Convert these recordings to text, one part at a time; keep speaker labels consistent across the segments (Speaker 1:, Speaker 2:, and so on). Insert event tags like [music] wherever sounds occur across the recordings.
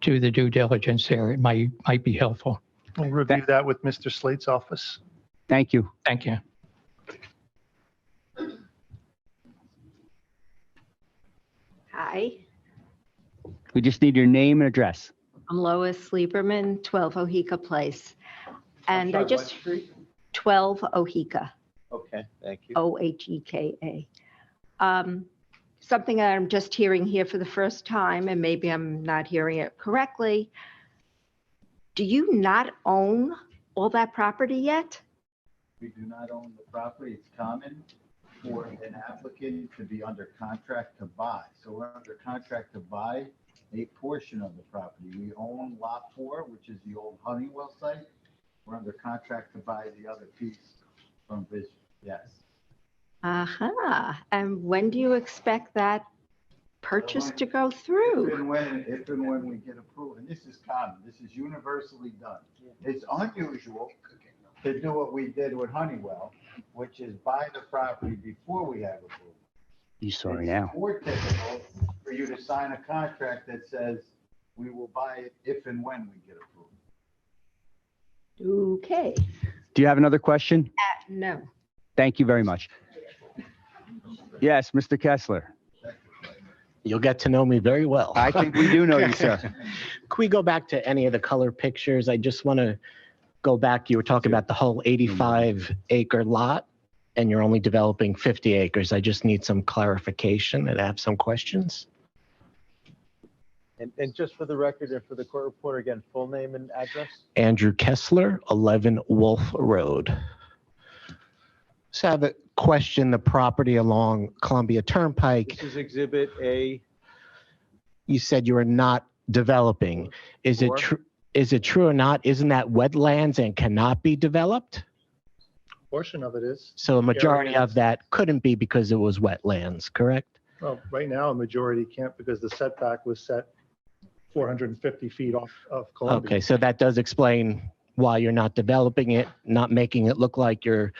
Speaker 1: do the due diligence there. It might, might be helpful.
Speaker 2: We'll review that with Mr. Slate's office.
Speaker 3: Thank you.
Speaker 1: Thank you.
Speaker 4: Hi,
Speaker 3: We just need your name and address.
Speaker 4: I'm Lois Lieberman, 12 Ohika Place. And I
Speaker 5: sorry, what
Speaker 4: just,
Speaker 5: street?
Speaker 4: 12 Ohika,
Speaker 5: Okay, thank you.
Speaker 4: O-H-E-K-A. Um, Something that I'm just hearing here for the first time, and maybe I'm not hearing it correctly. Do you not own all that property yet?
Speaker 5: We do not own the property. It's common for an applicant to be under contract to buy. So we're under contract to buy a portion of the property. We own lot four, which is the old Honeywell site. We're under contract to buy the other piece from Vision. Yes.
Speaker 4: Aha, and when do you expect that purchase to go through?
Speaker 5: If and when, if and when we get approved, and this is common, this is universally done. It's unusual to do what we did with Honeywell, which is buy the property before we have approval.
Speaker 3: You sorry
Speaker 5: It's
Speaker 3: now.
Speaker 5: More typical for you to sign a contract that says we will buy it if and when we get approved.
Speaker 4: Okay,
Speaker 3: Do you have another question?
Speaker 4: no.
Speaker 3: Thank you very much. Yes, Mr. Kessler.
Speaker 6: You'll get to know me very well.
Speaker 3: I
Speaker 6: [laughs]
Speaker 3: think we do know you, sir.
Speaker 6: Can we go back to any of the color pictures? I just want to go back. You were talking about the whole 85 acre lot and you're only developing 50 acres. I just need some clarification and I have some questions.
Speaker 7: And, and just for the record and for the court reporter, again, full name and address?
Speaker 6: Andrew Kessler, 11 Wolf Road. So I have a question, the property along Columbia Turnpike,
Speaker 7: This is exhibit A.
Speaker 6: you said you were not developing. Is it
Speaker 7: Or-
Speaker 6: true? Is it true or not? Isn't that wetlands and cannot be developed?
Speaker 2: Portion of it is,
Speaker 6: So a majority
Speaker 2: Areas.
Speaker 6: of that couldn't be because it was wetlands, correct?
Speaker 2: well, right now, a majority can't because the setback was set 450 feet off of Columbia.
Speaker 6: Okay, so that does explain why you're not developing it, not making it look like you're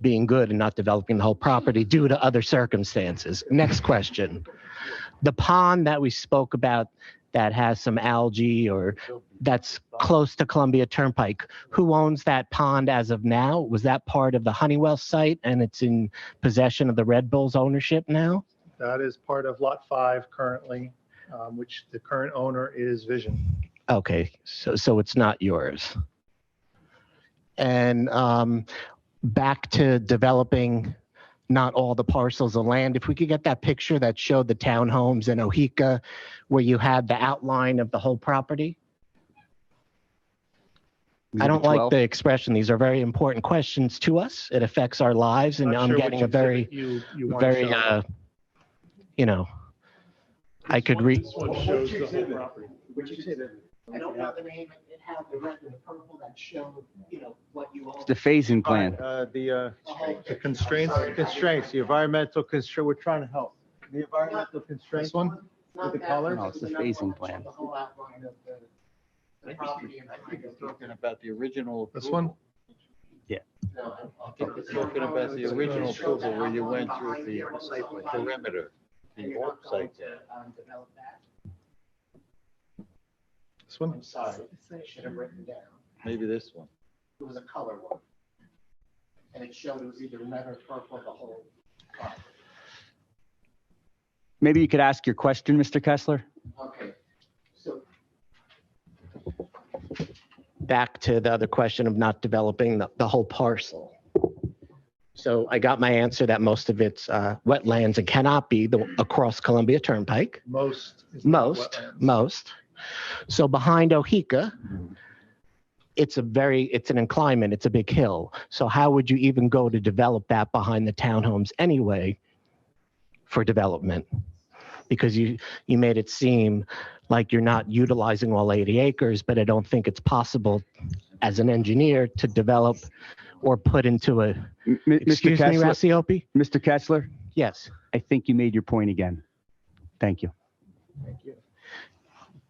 Speaker 6: being good and not developing the whole property due to other circumstances. Next question. The pond that we spoke about that has some algae or that's close to Columbia Turnpike, who owns that pond as of now? Was that part of the Honeywell site and it's in possession of the Red Bulls ownership now?
Speaker 2: That is part of Lot 5 currently, um, which the current owner is Vision.
Speaker 6: Okay, so so it's not yours. And um, back to developing not all the parcels of land. If we could get that picture that showed the townhomes in Ohika, where you had the outline of the whole property. I don't like the expression. These are very important questions to us. It affects our lives, and
Speaker 2: Not
Speaker 6: I'm
Speaker 2: sure
Speaker 6: getting a
Speaker 2: which
Speaker 6: very,
Speaker 2: exhibit You, you want to
Speaker 6: very,
Speaker 2: show.
Speaker 6: uh, you know, I could read.
Speaker 2: This one shows the whole property.
Speaker 5: Which exhibit?
Speaker 8: I don't know the name, it had the red and the purple that showed, you know, what you all.
Speaker 3: It's the phasing plan.
Speaker 7: Uh, the, uh,
Speaker 8: the whole-
Speaker 2: The constraints,
Speaker 7: constraints, the environmental constraint, we're trying to help. The environmental constraints.
Speaker 2: this one?
Speaker 8: not
Speaker 7: the
Speaker 8: that,
Speaker 7: color?
Speaker 3: No, it's the
Speaker 8: another one
Speaker 3: phasing
Speaker 8: that showed
Speaker 3: plan.
Speaker 8: The whole outline of the- the property and
Speaker 5: I think it's talking about the original.
Speaker 2: This one?
Speaker 5: approval.
Speaker 8: No, I- I
Speaker 5: I think it's talking about the original approval where you went through the perimeter,
Speaker 8: And
Speaker 5: the
Speaker 8: you're
Speaker 5: old
Speaker 8: not going
Speaker 5: site there.
Speaker 8: to, um, develop that.
Speaker 2: This one?
Speaker 8: I'm sorry, I should have written down.
Speaker 5: Maybe this one.
Speaker 8: It was a color one. And it showed it was either red or purple, the whole. property.
Speaker 3: Maybe you could ask your question, Mr. Kessler?
Speaker 8: Okay, so
Speaker 6: back to the other question of not developing the, the whole parcel. So I got my answer that most of it's uh, wetlands and cannot be the, across Columbia Turnpike,
Speaker 2: Most. is not
Speaker 6: most,
Speaker 2: wetlands.
Speaker 6: most. So behind Ohika, it's a very, it's an inclinement, it's a big hill. So how would you even go to develop that behind the townhomes anyway for development? Because you, you made it seem like you're not utilizing all 80 acres, but I don't think it's possible as an engineer to develop or put into a,
Speaker 3: M- m- Mr.
Speaker 6: excuse me,
Speaker 3: Kessler,
Speaker 6: Rassiope?
Speaker 3: Mr. Kessler,
Speaker 6: Yes,
Speaker 3: I think you made your point again. Thank you.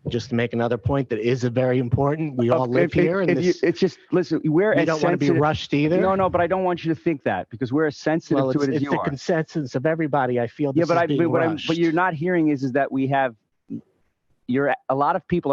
Speaker 6: just to make another point that is a very important, we all
Speaker 3: If-
Speaker 6: live
Speaker 3: Uh, if-
Speaker 6: here and
Speaker 3: if you-
Speaker 6: this,
Speaker 3: It's just, listen, we're
Speaker 6: we
Speaker 3: as
Speaker 6: don't want to be
Speaker 3: sensitive-
Speaker 6: rushed either.
Speaker 3: No, no, but I don't want you to think that because we're as sensitive
Speaker 6: Well,
Speaker 3: to
Speaker 6: it's,
Speaker 3: it as
Speaker 6: it's
Speaker 3: you
Speaker 6: the
Speaker 3: are.
Speaker 6: consensus of everybody. I feel this
Speaker 3: Yeah, but
Speaker 6: is
Speaker 3: I,
Speaker 6: being
Speaker 3: but what I'm,
Speaker 6: rushed.
Speaker 3: but you're not hearing is, is that we have, you're, a lot of people are.